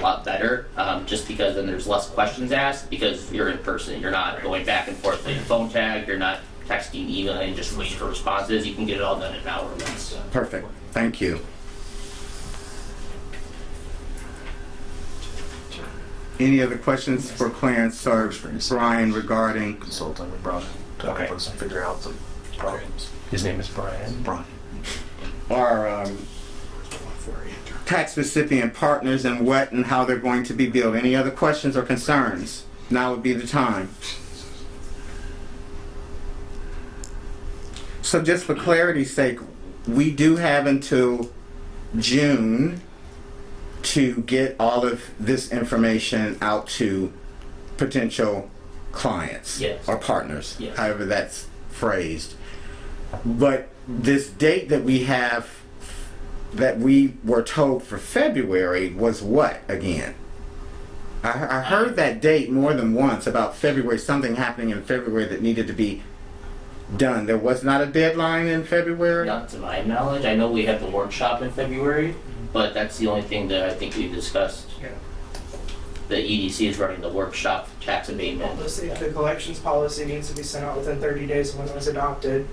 lot better, um, just because then there's less questions asked, because you're in person, you're not going back and forth playing phone tag, you're not texting, emailing, just waiting for responses, you can get it all done in an hour or less. Perfect, thank you. Any other questions for Clarence or Brian regarding, consulting with Brian to help us figure out the problems. His name is Brian. Brian. our um, tax recipient partners and what and how they're going to be billed? Any other questions or concerns? Now would be the time. So just for clarity's sake, we do have until June to get all of this information out to potential clients Yes. or partners, Yes. however that's phrased. But this date that we have that we were told for February was what again? I, I heard that date more than once about February, something happening in February that needed to be done. There was not a deadline in February? Not to my knowledge, I know we have the workshop in February, but that's the only thing that I think we discussed. The EDC is running the workshop for tax Well, abatement. the, the collections policy needs to be sent out within thirty days of when it was adopted.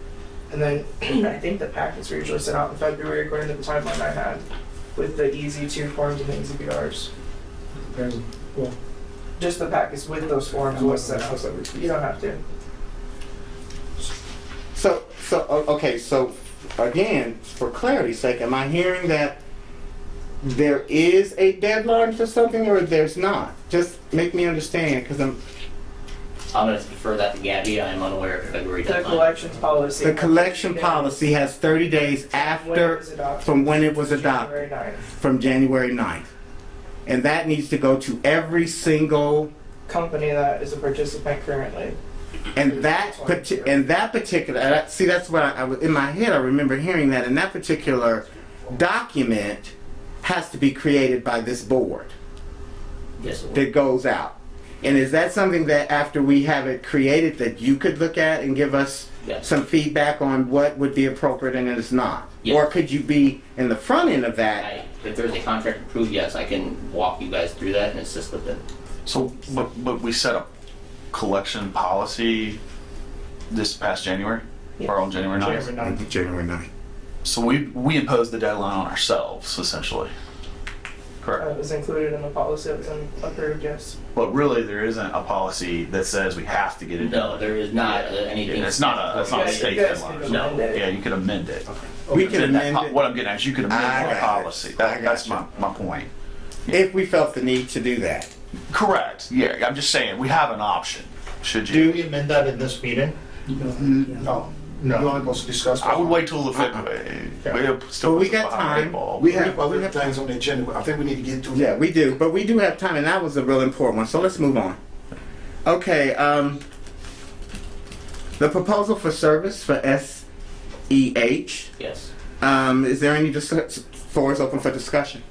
And then I think the packets were usually sent out in February according to the timeline I had with the easy two forms and the easy BRs. Just the packets with those forms was sent out, so you don't have to. So, so, o- okay, so again, for clarity's sake, am I hearing that there is a deadline for something or there's not? Just make me understand, because I'm, I'm gonna defer that to Gabby, I am unaware of February The deadline. collections policy. the collection policy has 30 days When it after, was adopted. from when it was adopted. January ninth. from January 9th. And that needs to go to every single, Company that is a participant currently. and that, parti- and that particular, and I- see, that's what I, I was- in my head, I remember hearing that, and that particular document has to be created by this board Yes, it will. that goes out. And is that something that after we have it created, that you could look at and give us Yes. some feedback on what would be appropriate and is not? Or Yes. could you be in the front end of that? I, if there's a contract approved, yes, I can walk you guys through that and assist with it. So, but, but we set up collection policy this past January, or on January 9th. January ninth. January 9th. So we, we imposed the deadline on ourselves essentially. Uh, Correct. It was included in the policy that was in- approved, yes. But really, there isn't a policy that says we have to get it No, done. there is not uh, anything. It's not a, it's not a You guys- state you guys deadline. can No. amend it. Yeah, you could amend it. We can Within that amend po- it. What I'm getting at is you could I amend got the it. policy. I got That, that's you. my, my point. If we felt the need to do that. Correct. Yeah, I'm just saying, we have an option, should you. Do we amend that in this meeting? No. No. You want to discuss? I would wait till the February. Yeah. We'll still But we put the got behind the time. ball. We have other things on the agenda, but I think we need to get to. Yeah, we do, but we do have time, and that was a real important one. So let's move on. Okay, um, the proposal for service for SEH. Yes. Um, is there any dis- floors open for discussion?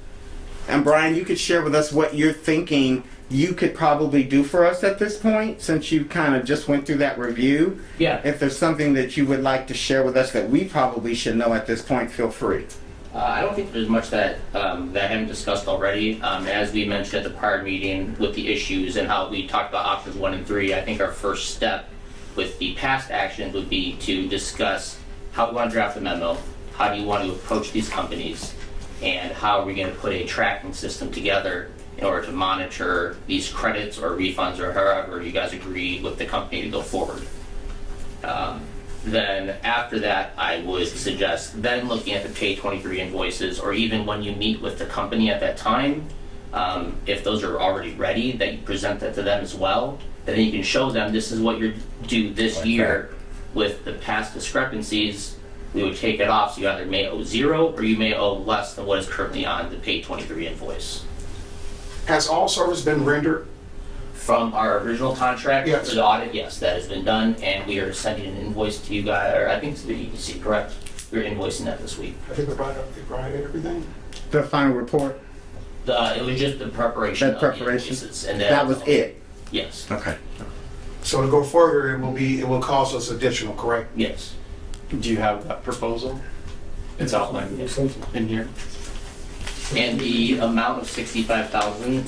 And Brian, you could share with us what you're thinking you could probably do for us at this point, since you kind of just went through that review. Yeah. If there's something that you would like to share with us that we probably should know at this point, feel free. Uh, I don't think there's much that, um, that I haven't discussed already. Um, as we mentioned at the prior meeting with the issues and how we talked about options one and three, I think our first step with the past actions would be to discuss how we want to draft the memo, how do you want to approach these companies, and how are we going to put a tracking system together in order to monitor these credits or refunds or however you guys agree with the company to go forward then after that, I would suggest then looking at the pay 23 invoices, or even when you meet with the company at that time, um, if those are already ready, that you present that to them as well. And then you can show them, this is what you're due this year with the past discrepancies. We would take it off, so you either may owe zero or you may owe less than what is currently on the pay 23 invoice. Has all service been rendered? From our original contract Yes. to the audit, yes, that has been done, and we are sending an invoice to you guys, or I think it's the EDC, correct? We're invoicing that this week. I think they provided, they provided everything. The final report. The, it was just the preparation That of the preparation? invoices, and then. That was it. Yes, Okay. So to go further, it will be, it will cost us additional, correct? yes. Do you have that proposal? It's outlined in here. And the amount of sixty-five thousand